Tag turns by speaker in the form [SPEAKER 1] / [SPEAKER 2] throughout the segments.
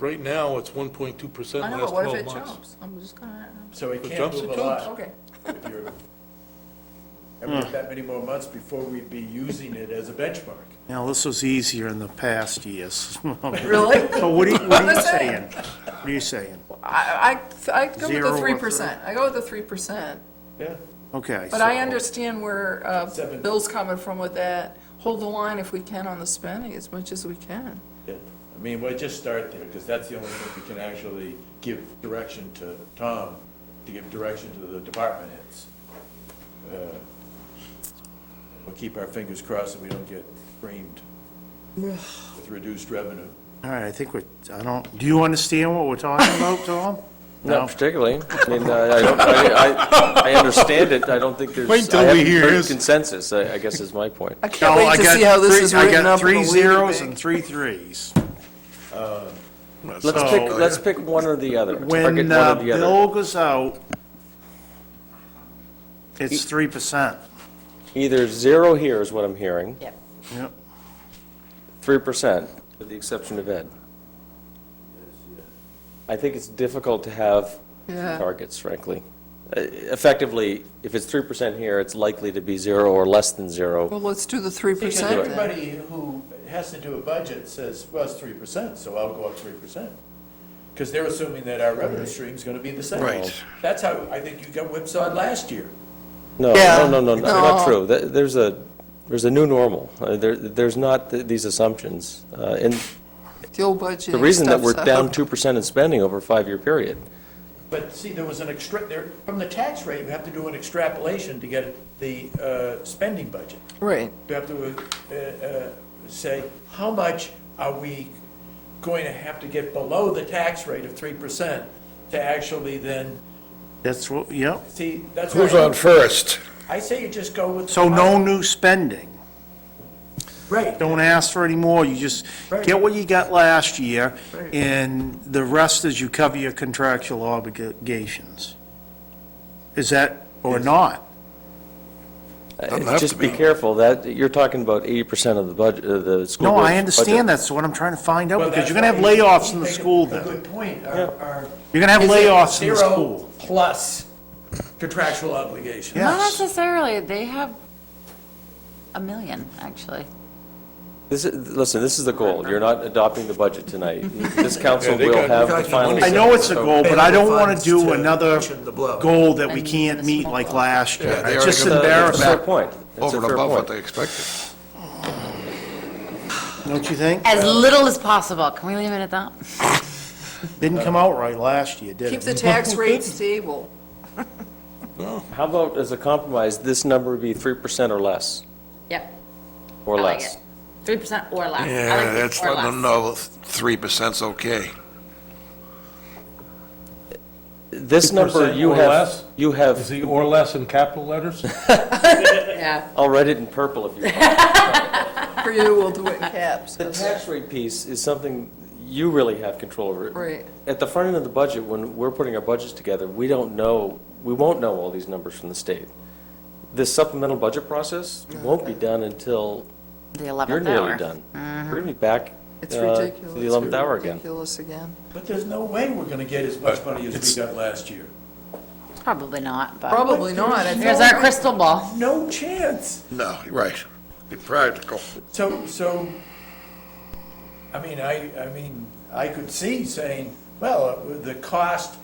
[SPEAKER 1] right now, it's one point two percent
[SPEAKER 2] I
[SPEAKER 1] last
[SPEAKER 2] know, but what if
[SPEAKER 1] twelve
[SPEAKER 2] it
[SPEAKER 1] months.
[SPEAKER 2] jumps? I'm just gonna,
[SPEAKER 3] So it
[SPEAKER 1] If it
[SPEAKER 3] can't
[SPEAKER 1] jumps,
[SPEAKER 3] move
[SPEAKER 1] it
[SPEAKER 3] a lot.
[SPEAKER 2] okay.
[SPEAKER 3] if you're- And we have that many more months before we'd be using it as a benchmark.
[SPEAKER 4] Now, this was easier in the past years.
[SPEAKER 2] Really?
[SPEAKER 4] So what are you, what are you
[SPEAKER 2] Listen.
[SPEAKER 4] saying? What are you saying?
[SPEAKER 2] I, I, I go with
[SPEAKER 4] Zero
[SPEAKER 2] the
[SPEAKER 4] or
[SPEAKER 2] three percent. I go with the three percent.
[SPEAKER 3] Yeah.
[SPEAKER 4] Okay.
[SPEAKER 2] But I
[SPEAKER 4] so-
[SPEAKER 2] understand where, uh,
[SPEAKER 3] Seven.
[SPEAKER 2] Bill's coming from with that. Hold the line if we can on the spending as much as we can.
[SPEAKER 3] Yeah. I mean, we'll just start there, because that's the only thing we can actually give direction to Tom, to give direction to the department heads. Uh, We'll keep our fingers crossed that we don't get creamed with reduced revenue.
[SPEAKER 4] All right, I think we're, I don't, do you understand what we're talking about, Tom?
[SPEAKER 5] Not particularly. I mean, uh, I, I don't, I, I, I understand it. I don't think there's.
[SPEAKER 4] Wait till
[SPEAKER 5] I
[SPEAKER 4] we
[SPEAKER 5] haven't
[SPEAKER 4] hear
[SPEAKER 5] heard
[SPEAKER 4] his-
[SPEAKER 5] Consensus, I, I guess is my point.
[SPEAKER 2] I can't wait to see how this is written up in a
[SPEAKER 4] I got three
[SPEAKER 2] weedy
[SPEAKER 4] zeros
[SPEAKER 2] bag.
[SPEAKER 4] and three threes.
[SPEAKER 5] Let's
[SPEAKER 4] So-
[SPEAKER 5] pick, let's pick one or the other. Let's pick
[SPEAKER 4] When
[SPEAKER 5] one or
[SPEAKER 4] uh,
[SPEAKER 5] the other.
[SPEAKER 4] Bill goes out, it's three percent.
[SPEAKER 5] Either zero here is what I'm hearing,
[SPEAKER 6] Yep.
[SPEAKER 4] Yep.
[SPEAKER 5] three percent, with the exception of Ed. I think it's difficult to have two
[SPEAKER 2] Yeah.
[SPEAKER 5] targets, frankly. Uh, Effectively, if it's three percent here, it's likely to be zero or less than zero.
[SPEAKER 2] Well, let's do the three
[SPEAKER 3] Because
[SPEAKER 2] percent then.
[SPEAKER 3] everybody who has to do a budget says, well, it's three percent, so I'll go up three percent. Because they're assuming that our revenue stream's gonna be the same.
[SPEAKER 5] Right.
[SPEAKER 3] That's how, I think you got whipsawed last year.
[SPEAKER 5] No,
[SPEAKER 2] Yeah.
[SPEAKER 5] no, no, no, no, not
[SPEAKER 2] No.
[SPEAKER 5] true. Th- There's a, there's a new normal. Uh, There, there's not th- these assumptions. Uh, And
[SPEAKER 2] The old budget
[SPEAKER 5] The reason that we're
[SPEAKER 2] stuff's
[SPEAKER 5] down
[SPEAKER 2] up.
[SPEAKER 5] 2% in spending over a five-year period.
[SPEAKER 3] But see, there was an extra, there, from the tax rate, you have to do an extrapolation to get the, uh, spending budget.
[SPEAKER 2] Right.
[SPEAKER 3] You have to, uh, uh, say, how much are we going to have to get below the tax rate of three percent to actually then,
[SPEAKER 4] That's what, yep.
[SPEAKER 3] see, that's
[SPEAKER 7] Who's on
[SPEAKER 3] why,
[SPEAKER 7] first?
[SPEAKER 3] I say you just go with.
[SPEAKER 4] So no new spending.
[SPEAKER 3] Right.
[SPEAKER 4] Don't ask for any more. You just get what you got last year,
[SPEAKER 3] Right.
[SPEAKER 4] and the rest is you cover your contractual obligations. Is that, or not?
[SPEAKER 7] Doesn't have
[SPEAKER 5] uh, Just
[SPEAKER 7] to
[SPEAKER 5] be
[SPEAKER 7] be.
[SPEAKER 5] careful, that, you're talking about 80% of the budget, of the school
[SPEAKER 4] No,
[SPEAKER 5] board's
[SPEAKER 4] I understand,
[SPEAKER 5] budget.
[SPEAKER 4] that's what I'm trying to find out,
[SPEAKER 3] Well, that's
[SPEAKER 4] because you're gonna have
[SPEAKER 3] why you-
[SPEAKER 4] layoffs
[SPEAKER 3] you
[SPEAKER 4] in the
[SPEAKER 3] make a-
[SPEAKER 4] school
[SPEAKER 3] A
[SPEAKER 4] then.
[SPEAKER 3] good point. Are- are-
[SPEAKER 4] You're gonna have
[SPEAKER 3] is it
[SPEAKER 4] layoffs in the
[SPEAKER 3] zero
[SPEAKER 4] school.
[SPEAKER 3] Plus contractual obligations.
[SPEAKER 4] Yeah.
[SPEAKER 6] Not
[SPEAKER 4] Yes.
[SPEAKER 6] necessarily, they have a million, actually.
[SPEAKER 5] This is, listen, this is the goal, you're not adopting the budget tonight. This council
[SPEAKER 1] Yeah, they
[SPEAKER 5] will
[SPEAKER 1] got-
[SPEAKER 5] have the
[SPEAKER 3] Talking
[SPEAKER 5] final.
[SPEAKER 3] about-
[SPEAKER 4] I know it's a
[SPEAKER 5] say.
[SPEAKER 4] goal, but I don't wanna
[SPEAKER 3] Funds
[SPEAKER 4] do
[SPEAKER 3] to
[SPEAKER 4] another
[SPEAKER 3] cushion the blow.
[SPEAKER 4] goal that we
[SPEAKER 6] And
[SPEAKER 4] can't meet
[SPEAKER 6] municipal
[SPEAKER 4] like
[SPEAKER 6] law.
[SPEAKER 4] last
[SPEAKER 7] Yeah,
[SPEAKER 4] year.
[SPEAKER 7] they
[SPEAKER 4] It's
[SPEAKER 7] already
[SPEAKER 4] just
[SPEAKER 7] got that.
[SPEAKER 5] That's a fair
[SPEAKER 4] embarrassing,
[SPEAKER 5] point. That's
[SPEAKER 7] Over
[SPEAKER 5] a
[SPEAKER 7] and
[SPEAKER 5] fair
[SPEAKER 7] above what
[SPEAKER 5] point.
[SPEAKER 7] they expected.
[SPEAKER 4] don't you think?
[SPEAKER 6] As little as possible, can we leave it at that?
[SPEAKER 4] Didn't come out right last year, did it?
[SPEAKER 2] Keep the tax rate stable.
[SPEAKER 5] How about, as a compromise, this number be 3% or less,
[SPEAKER 6] Yep.
[SPEAKER 5] or less?
[SPEAKER 6] Three percent or less. I like
[SPEAKER 7] Yeah,
[SPEAKER 6] the
[SPEAKER 7] that's
[SPEAKER 6] or
[SPEAKER 7] letting
[SPEAKER 6] less.
[SPEAKER 7] them know three percent's okay.
[SPEAKER 5] This number
[SPEAKER 1] 3%
[SPEAKER 5] you
[SPEAKER 1] or
[SPEAKER 5] have,
[SPEAKER 1] less?
[SPEAKER 5] you
[SPEAKER 1] Is
[SPEAKER 5] have,
[SPEAKER 1] the or less in capital letters?
[SPEAKER 6] Yeah.
[SPEAKER 5] I'll write it in purple if you want.
[SPEAKER 2] For you, we'll do it in caps.
[SPEAKER 5] The tax rate piece is something you really have control over.
[SPEAKER 2] Right.
[SPEAKER 5] At the front end of the budget, when we're putting our budgets together, we don't know, we won't know all these numbers from the state. This supplemental budget process
[SPEAKER 2] Oh,
[SPEAKER 5] won't be done until
[SPEAKER 6] The
[SPEAKER 5] you're
[SPEAKER 6] eleventh hour.
[SPEAKER 5] nearly done. We're gonna be back uh,
[SPEAKER 2] Mm-hmm. It's
[SPEAKER 5] to
[SPEAKER 2] ridiculous.
[SPEAKER 5] the 11th hour again.
[SPEAKER 2] Ridiculous again.
[SPEAKER 3] But there's no way we're gonna get as much money as we got last year.
[SPEAKER 6] Probably not, but
[SPEAKER 2] Probably not. I
[SPEAKER 6] there's
[SPEAKER 2] think-
[SPEAKER 6] our crystal ball.
[SPEAKER 3] No chance.
[SPEAKER 7] No, you're right. Be practical.
[SPEAKER 3] So, so, I mean, I, I mean, I could see saying, well, the cost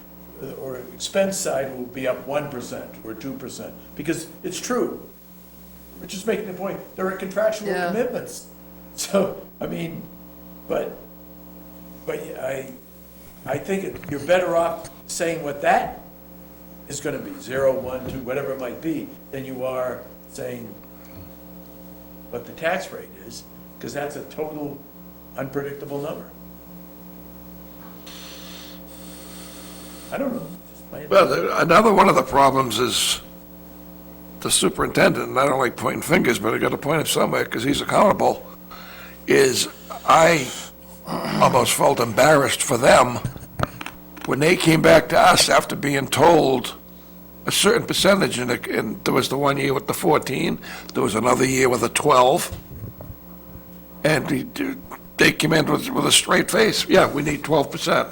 [SPEAKER 3] or expense side will be up one percent or two percent, because it's true. We're just making the point, there are contractual
[SPEAKER 2] Yeah.
[SPEAKER 3] commitments. So, I mean, but, but I, I think it- you're better off saying what that is gonna be, zero, one, two, whatever it might be, than you are saying what the tax rate is, because that's a total unpredictable number. I don't know. Just my-
[SPEAKER 7] Well, the- another one of the problems is the superintendent, and I don't like pointing fingers, but I got to point him somewhere because he's accountable, is I almost felt embarrassed for them when they came back to us after being told a certain percentage, and, it- and there was the one year with the 14, there was another year with a 12, and he- they came in with, with a straight face, yeah, we need twelve percent.